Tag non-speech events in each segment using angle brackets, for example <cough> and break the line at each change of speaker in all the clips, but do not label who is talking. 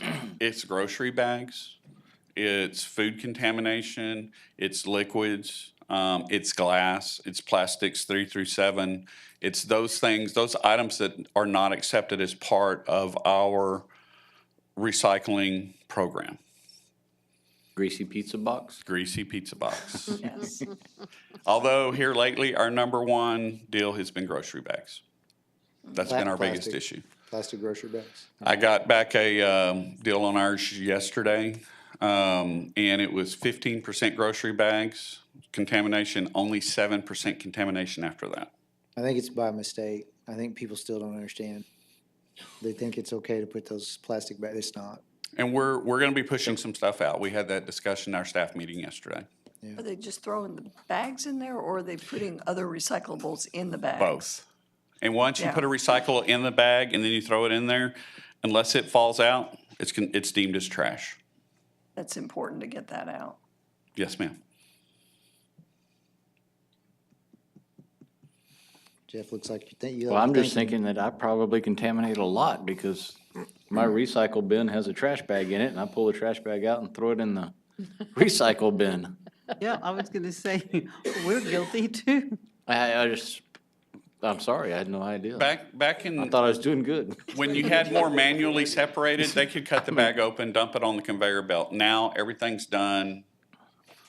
<clears throat> it's grocery bags, it's food contamination, it's liquids, um, it's glass, it's plastics three through seven. It's those things, those items that are not accepted as part of our recycling program.
Greasy pizza box?
Greasy pizza box.
<laughs>
Yes.
Although here lately, our number one deal has been grocery bags. That's been our biggest
Plastic.
issue.
Plastic grocery bags.
I got back a um, deal on ours yesterday, um, and it was fifteen percent grocery bags contamination, only seven percent contamination after that.
I think it's by mistake. I think people still don't understand. They think it's okay to put those plastic bags. It's not.
And we're we're going to be pushing some stuff out. We had that discussion in our staff meeting yesterday.
Are they just throwing the bags in there, or are they putting other recyclables in the bags?
Both. And once you
Yeah.
put a recycle in the bag and then you throw it in there, unless it falls out, it's con- it's deemed as trash.
That's important to get that out.
Yes, ma'am.
Jeff looks like you think you.
Well, I'm just thinking that I probably contaminate a lot because my recycle bin has a trash bag in it and I pull the trash bag out and throw it in <laughs> the recycle bin.
Yeah, I was gonna say, <laughs> we're guilty too.
I, I just, I'm sorry, I had no idea. I
Back back in
thought I was doing good.
When you had more manually separated, they could cut the bag open, dump it on the conveyor belt. Now, everything's done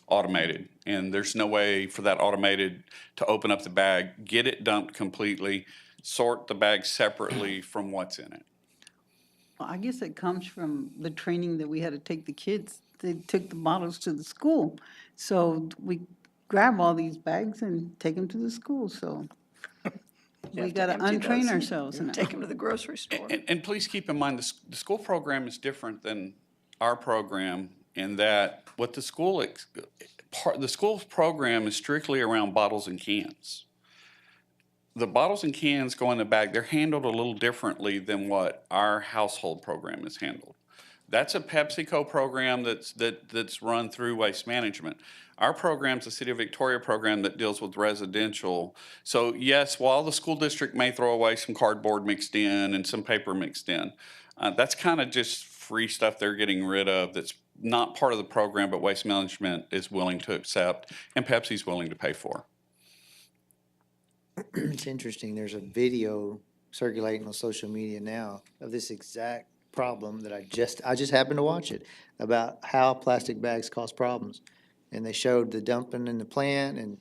automated, and there's no way for that automated to open up the bag, get it dumped completely, sort the bag separately from what's in it.
Well, I guess it comes from the training that we had to take the kids. They took the models to the school. So we grab all these bags and take them to the school, <laughs> so we
have to
gotta
empty those
untrain
and
ourselves now.
Take them to the
<laughs>
grocery store.
And, and please keep in mind, the, s- the school program is different than our program in that what the school, ex- part, the school's program is strictly around bottles and cans. The bottles and cans go in the bag, they're handled a little differently than what our household program is handled. That's a PepsiCo program that's, that, that's run through Waste Management. Our program's a City of Victoria program that deals with residential. So yes, while the school district may throw away some cardboard mixed in and some paper mixed in, uh, that's kind of just free stuff they're getting rid of that's not part of the program, but Waste Management is willing to accept and Pepsi's willing to pay for.
It's interesting. There's a video circulating on social media now of this exact problem that I just, I just happened to watch it about how plastic bags cause problems. And they showed the dumping in the plant and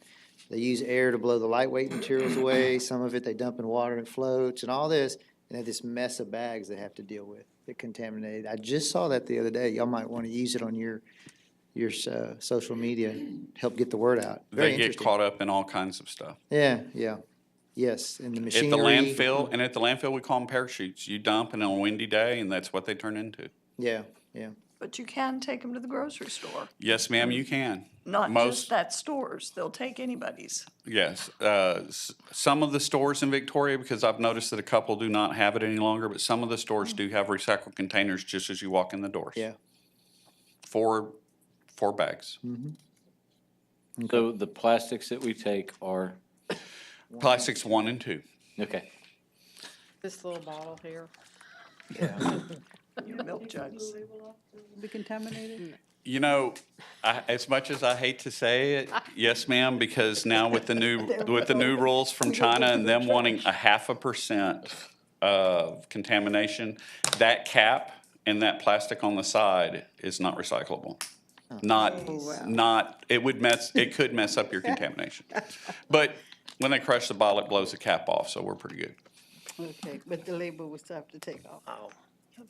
they use air to blow the lightweight materials away. Some of it they dump in water and it floats and all this. And they have this mess of bags they have to deal with that contaminated. I just saw that the other day. Y'all might want to use it on your, your, uh, social media, help get the word out. Very
They get
interesting.
caught up in all kinds of stuff.
Yeah, yeah. Yes, and
At
the
the
machinery.
landfill, and at the landfill, we call them parachutes. You dump and on a windy day, and that's what they turn into.
Yeah, yeah.
But you can take them to the grocery store,
Yes, ma'am, you can.
not
Most-
just that stores. They'll take anybody's.
Yes, uh, s- some of the stores in Victoria, because I've noticed that a couple do not have it any longer, but some of the stores do have recycled containers just as you walk in the doors.
Yeah.
Four, four bags.
So the plastics that we take are,
Plastics one and two.
okay.
This little bottle here.
Your milk jugs.
Be contaminated?
You know, I, as much as I hate to say it, yes, ma'am, because now with the new, with the new rules from China and them wanting a half a percent of contamination, that cap and that plastic on the side is not recyclable. Not, not, it would mess, it could mess up your contamination. But when they crush the bottle, it blows the cap off, so we're pretty good.
Okay, but the label we still have to take off.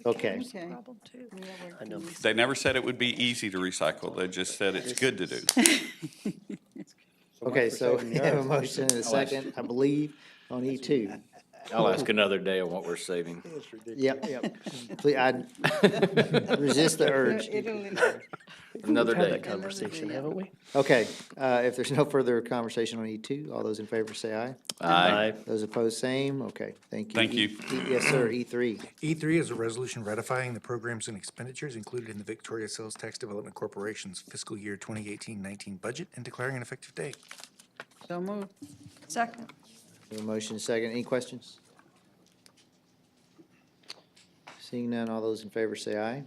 Okay.
It's a
Okay.
problem, too.
They never said it would be easy to recycle. They just said it's good to do.
Okay, so we have a motion and a second, I believe, on E two.
I'll ask another day on what we're saving.
Yep, yep. Please, I resist the urge.
<laughs>
Another day.
Conversation, haven't we?
Okay, uh, if there's no further conversation on E two, all those in favor say aye.
Aye.
Those opposed, same. Okay, thank you.
Thank
E- E- Yes, sir, E three.
E3 is a resolution ratifying the programs and expenditures included in the Victoria Sales Tax Development Corporation's fiscal year 2018-19 budget and declaring an effective date.
So moved.
Second,
A motion second. Any questions? Seeing none, all those in favor say aye.